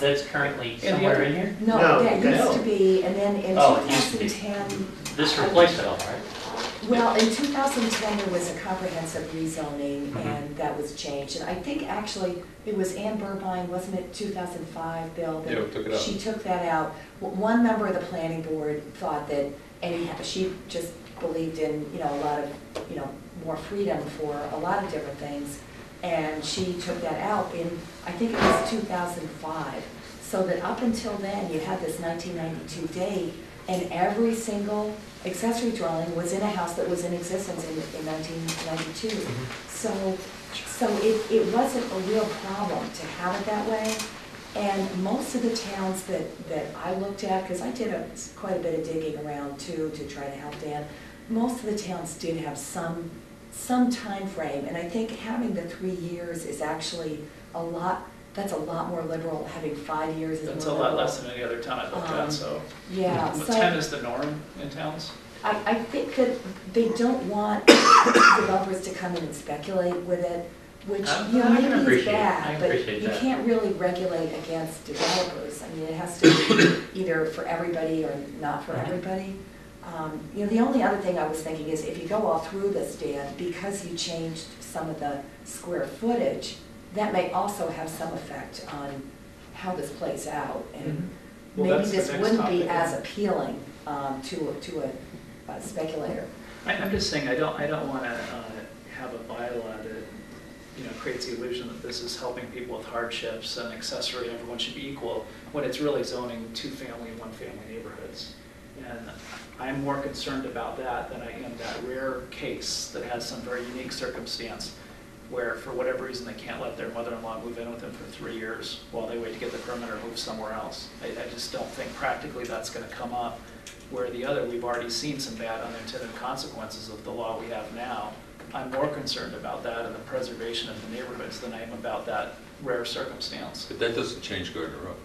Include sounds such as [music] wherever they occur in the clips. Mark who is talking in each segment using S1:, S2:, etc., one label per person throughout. S1: that's currently
S2: the
S1: somewhere
S2: other-
S1: in here?
S3: No,
S4: No, that
S3: that's-
S4: used to be, and then in
S1: Oh, it used to be.
S4: 2010,
S1: This replaced it all, right?
S4: well, in 2010, there was a comprehensive rezoning,
S1: Mhm.
S4: and that was changed. And I think actually, it was Ann Burbine, wasn't it, 2005, Bill? that
S2: Yeah, we took it out.
S4: She took that out. W- One member of the planning board thought that, any she just believed in, you know, a lot of, you know, more freedom for a lot of different things. And she took that out in, I think it was 2005. So that up until then, you had this 1992 date, and every single accessory dwelling was in a house that was in existence in in 1992. So, so it, it wasn't a real problem to have it that way. And most of the towns that, that I looked at, because I did a- quite a bit of digging around too, to try to help Dan, most of the towns did have some, some time frame, And I think having the three years is actually a lot, that's a lot more liberal, having five years is more
S5: That's a lot
S4: liberal.
S5: less than any other town I've looked
S4: Um,
S5: at, so.
S4: Yeah,
S5: But
S4: so.
S5: Ten is the norm in towns?
S4: I, I think that they don't want [coughs] developers to come in and speculate with it, which,
S1: I-
S4: you know,
S1: Uh, I can
S4: maybe is
S1: appreciate- I
S4: bad, but
S1: appreciate
S4: you
S1: that.
S4: can't really regulate against developers. I mean, it has to be [coughs] either for everybody or not for
S1: Right.
S4: everybody. Um, You know, the only other thing I was thinking is if you go all through this, Dan, because you changed some of the square footage, that may also have some effect on how this plays out.
S1: Mm-hmm.
S4: And
S5: Mhm. Well,
S4: maybe
S5: that's the
S4: this
S5: next
S4: wouldn't be
S5: topic,
S4: as
S5: yeah.
S4: appealing um, to, a- to a a speculator.
S5: I, I'm just saying, I don't, I don't wanna, uh, have a bylaw that, you know, creates the illusion that this is helping people with hardships and accessory, everyone should be equal, when it's really zoning two-family and one-family neighborhoods. And I'm more concerned about that than I am that rare case that has some very unique circumstance where, for whatever reason, they can't let their mother-in-law move in with them for three years while they wait to get the permit or move somewhere else. I, I just don't think practically that's gonna come up. Where the other, we've already seen some bad unintended consequences of the law we have now. I'm more concerned about that and the preservation of the neighborhoods than I am about that rare circumstance.
S6: But that doesn't change Gardner Road.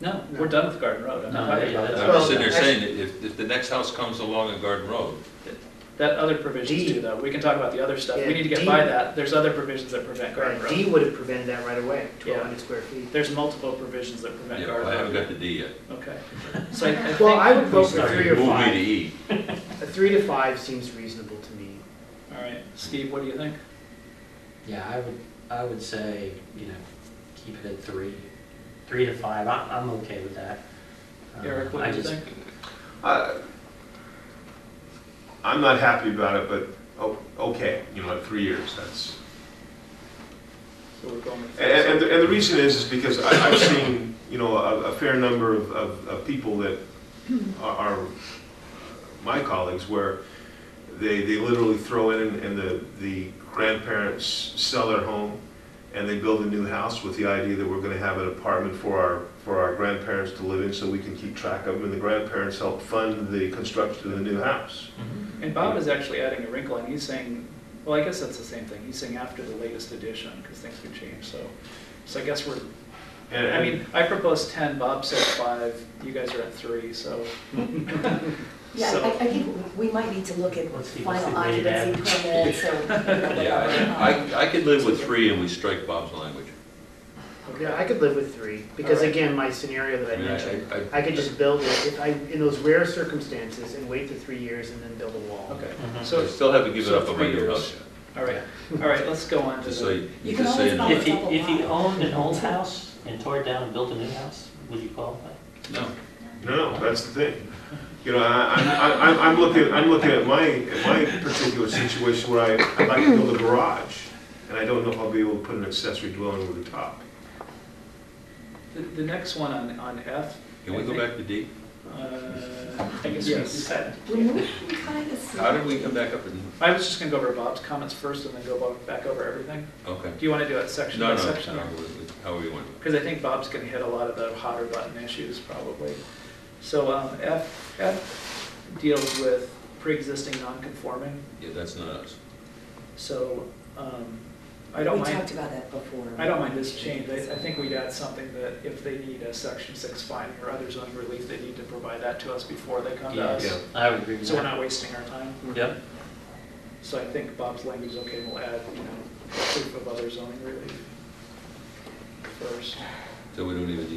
S5: No, we're done with Garden Road. I'm not
S1: No,
S5: talking about
S1: yeah,
S5: that.
S6: I'm
S3: Well,
S6: just sitting there
S3: actu-
S6: saying, that if, if the next house comes along in Garden Road,
S5: That other provisions
S2: D.
S5: too, though, we can talk about the other stuff,
S3: Yeah,
S5: we need to get
S2: D.
S5: by that, there's other provisions that prevent Garden
S3: D
S5: Road.
S3: would have prevented that right away, twelve hundred square feet.
S5: There's multiple provisions that
S6: you
S5: prevent
S6: know, I haven't
S5: Garden Road.
S6: got the D yet.
S5: Okay, so I, I think.
S3: Well, I would vote for
S5: Sorry.
S3: Three or
S6: Move me
S3: five.
S6: to E.
S3: A three to five seems reasonable to me.
S5: All right, Steve, what do you think?
S1: Yeah, I would, I would say, you know, keep it at three, three to five, I'm, I'm okay with that.
S6: Uh,
S1: Um,
S5: Eric,
S1: I
S5: what do you
S1: just-
S5: think?
S7: I- I'm not happy about it, but, oh, okay, you know, three years, that's,
S5: So we're going with.
S7: and, and the- and the reason is, is because I, I've seen, you know, a, a fair number of, of, of people that are, are my colleagues, where they, they literally throw in, and the, the grandparents sell their home, and they build a new house with the idea that we're gonna have an apartment for our, for our grandparents to live in, so we can keep track of them, and the grandparents help fund the construction of the new house.
S5: And Bob is actually adding a wrinkle, and he's saying, well, I guess that's the same thing, he's saying after the latest edition, because things could change, so. So I guess we're,
S7: And,
S5: I mean, I proposed ten, Bob said five, you guys are at three, so.
S4: Yeah,
S5: So-
S4: I, I think we might need to look at
S1: Let's see,
S4: final
S1: let's see, wait it out.
S4: occupancy permits or. you
S6: [laughs]
S4: know,
S6: Yeah,
S4: whatever. Um,
S6: I, I could live with three and we strike Bob's language.
S3: Yeah, I could live with three, because
S5: Alright.
S3: again, my scenario that I
S6: mean,
S3: mentioned, I could just build it, if I, in those rare circumstances, and wait for three years and then build a wall.
S5: Okay,
S1: Mhm.
S6: I
S5: so,
S6: still haven't given
S5: so
S6: up on my
S5: three
S6: new
S5: years.
S6: house yet.
S5: all right, all right, let's go on to
S6: Just so
S5: the,
S6: you,
S4: You
S6: you
S4: can
S6: just
S4: always
S6: say
S4: buy-
S6: no.
S1: If you, if you owned an old house and tore it down and built a new house, would you qualify?
S6: No.
S7: No, that's the thing. You know, I, I'm- I, I'm, I'm looking, I'm looking at my, at my particular situation where I, I'd like to build a garage, and I don't know if I'll be able to put an accessory dwelling over the top.
S5: the, the next one on, on F.
S6: Can we go back to D?
S5: Uh, I guess we
S3: Yes.
S5: said.
S4: When we kind of see-
S6: How did we come back up and,
S5: I was just gonna go over Bob's comments first and then go bo- back over everything.
S6: okay.
S5: Do you wanna do it section
S6: No,
S5: by
S6: no,
S5: section?
S6: no, we- we- however you want.
S5: Because I think Bob's gonna hit a lot of the hotter button issues probably. So um, F, F deals with pre-existing non-conforming,
S6: Yeah, that's not us.
S5: so um, I don't
S4: We
S5: mind,
S4: talked about that before.
S5: I don't mind this change. I I think we'd add something that if they need a section six finding or other zoning relief, they need to provide that to us before they come to
S1: Yes,
S5: us.
S1: I would agree with
S5: So we're
S1: that.
S5: not wasting our time.
S1: Yep,
S5: So I think Bob's language, is okay, we'll add, you know, proof of other zoning relief first.
S6: So we don't even need